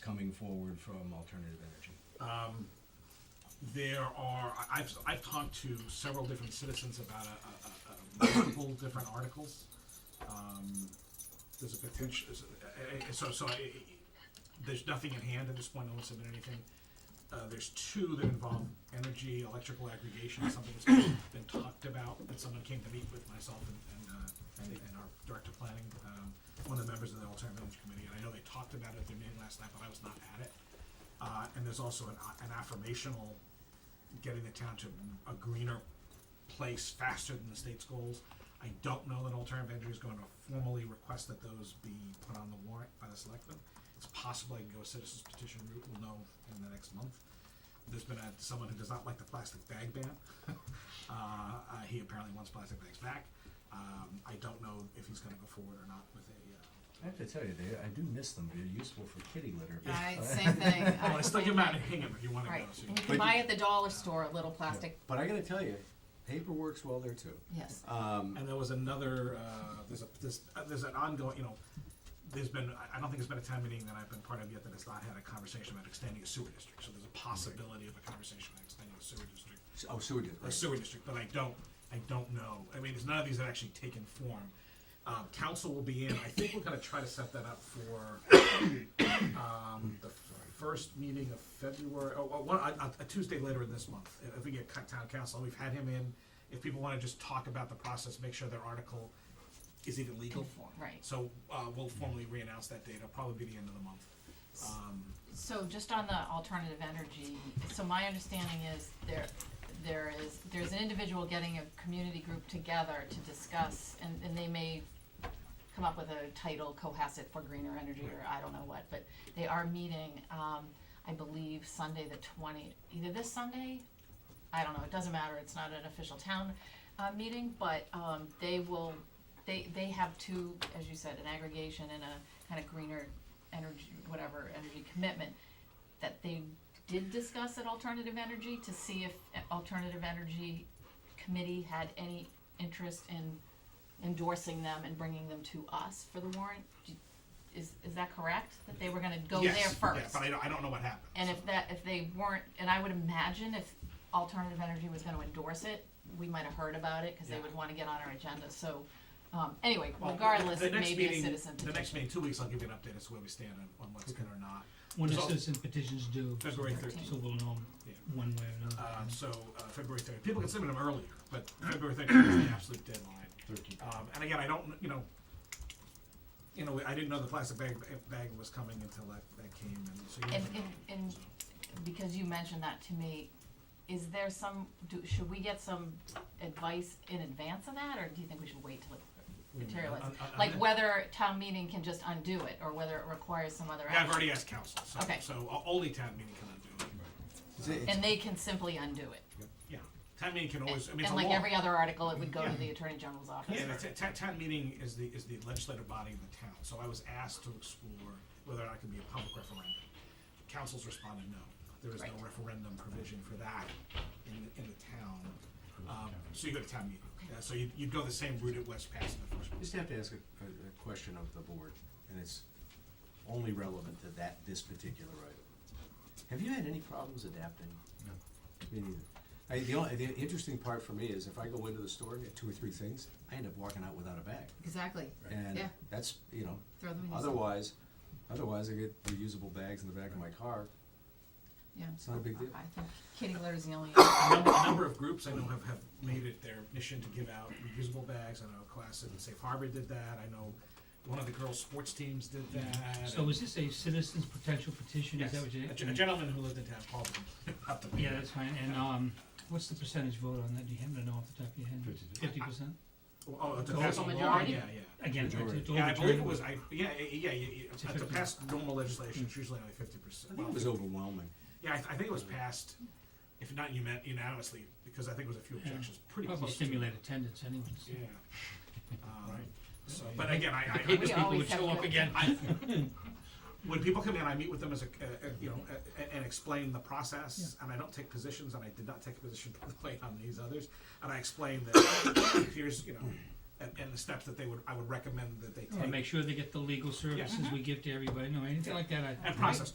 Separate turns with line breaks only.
coming forward from alternative energy?
There are, I- I've, I've talked to several different citizens about a, a, a, a multiple different articles. Um, There's a potential, is- uh, uh, so, so I, there's nothing in hand at this point, no one's submitted anything. Uh, there's two that involve energy, electrical aggregation, something that's been been talked about, that someone came to meet with myself and, and, uh, and and our director of planning, um, one of the members of the alternative energy committee, and I know they talked about it at their meeting last night, but I was not at it. Uh, and there's also an, an affirmational, getting the town to a greener place faster than the state's goals. I don't know that alternative energy is going to formally request that those be put on the warrant by the selectmen. It's possible I can go a citizen's petition route, we'll know in the next month. There's been a, someone who does not like the plastic bag ban. Uh, uh, he apparently wants plastic bags back. Um, I don't know if he's gonna go forward or not with a, uh,
I have to tell you, they, I do miss them, they're useful for kitty litter. but-
I, same thing.
well, I still give him out and hang him if you wanna
Right,
go, so you
and you
can-
can buy at the dollar store a little plastic,
But I gotta tell you, paper works well there too.
yes.
Um,
And there was another, uh, there's a, there's, uh, there's an ongoing, you know, there's been, I- I don't think there's been a town meeting that I've been part of yet that has not had a conversation about extending a sewer district. So there's a possibility of a conversation about extending a sewer district,
s- oh, sewer did,
a
right.
sewer district, but I don't, I don't know. I mean, there's none of these that actually taken form. Um, council will be in, I think we're gonna try to set that up for, um, the first meeting of February, oh, oh, one, a, a- a Tuesday later in this month. If- If we get cut town council, we've had him in, if people wanna just talk about the process, make sure their article is even legal.
Right.
So, uh, we'll formally re-announce that date, it'll probably be the end of the month. Um,
So just on the alternative energy, so my understanding is there, there is, there's an individual getting a community group together to discuss, and, and they may come up with a title, Cohasset for Greener Energy, or I don't know what, but they are meeting, um, I believe Sunday the twentieth, either this Sunday, I don't know, it doesn't matter, it's not an official town, uh, meeting, but, um, they will, they, they have two, as you said, an aggregation and a kind of greener energy, whatever, energy commitment that they did discuss at Alternative Energy to see if Alternative Energy Committee had any interest in endorsing them and bringing them to us for the warrant. Do- Is, is that correct? That they were gonna go there
yes,
first?
yeah, But I don't, I don't know what happened.
And
so.
if that, if they weren't, and I would imagine if Alternative Energy was gonna endorse it, we might have heard about it, cause they
Yeah.
would wanna get on our agenda, so, um, anyway,
Well,
regardless,
the
it
next
may be a
meeting-
citizen petition.
The next meeting, two weeks, I'll give you an update as to where we stand on, on what's good or not.
When the
There's al-
citizen petitions due,
February
so
thirteenth,
we'll know
Yeah.
one way or another.
um, so, uh, February thirteenth, people can submit them earlier, but February thirteenth is the absolute deadline.
Thirteen.
Um, and again, I don't, kn- you know, you know, I didn't know the plastic bag, bag was coming until that, that came, and so you
And,
never know.
and, and because you mentioned that to me, is there some, do, should we get some advice in advance of that, or do you think we should wait till
Mm,
it materializes?
On- on- on
Like
that-
whether town meeting can just undo it, or whether it requires some other
Yeah, I've
action,
already asked council, so,
Okay.
so o- only town meeting can undo it,
It's- it's-
and they can simply undo it.
yeah, town meeting can always, I mean, it's a
And
law.
like every other article, it would go
Yeah.
to the attorney general's office.
Yeah, the ta- ta- town meeting is the, is the legislative body of the town, so I was asked to explore whether or not it could be a public referendum. Council's responded, no, there is no
Right.
referendum provision for that in, the- in the town. Um, so you go to town meeting, Uh, so you, you'd go the same route at West Pass in the first
Just
place.
have to ask a, a, a question of the board, and it's only relevant to that, this particular item. Have you had any problems adapting? No. Me neither. I, the only, the interesting part for me is if I go into the store and get two or three things, I end up walking out without a bag.
Exactly,
And
Yeah.
that's, you know,
throw them in your.
otherwise, otherwise I get reusable bags in the back of my car.
Yeah.
It's not a big deal.
I think kitty litter is the only,
A number, a number of groups I know have, have made it their mission to give out reusable bags, I know Classic and Safe Harbor did that, I know one of the girls' sports teams did that.
Mm-hmm. So
and-
is this a citizen's potential petition,
Yes,
is that what you?
a gen- a gentleman who lived in town called them about the.
Yeah, that's fine, and, um, what's the percentage vote on that, do you happen to know off the top of your head? Fifty percent?
Oh, to
Total
pass on the law,
majority?
yeah, yeah.
Again, it's
Majority.
it's
Yeah, I believe it
overturned.
was, I, yeah, yeah, yeah, yeah,
It's a
yeah, to
50.
pass normal legislation, it's usually only fifty percent.
I think it was overwhelming.
Yeah, I, th- I think it was passed, if not unan- unanimously, because I think it was a few
Yeah.
objections, pretty close.
Probably
to-
stimulate attendance anyways.
Yeah. Um, So, but again, I, I-
The
I,
paper
We
people
always
would
have
show up
good-
again.
I, when people come in, I meet with them as a, uh, uh, you know, uh, and explain the process, and I don't take positions, and I did not take a position to play on these others, and I explain that, here's, you know, and, and the steps that they would, I would recommend that they
And
take,
make sure they get the legal services we give to everybody, no, anything like that, I.
and process questions.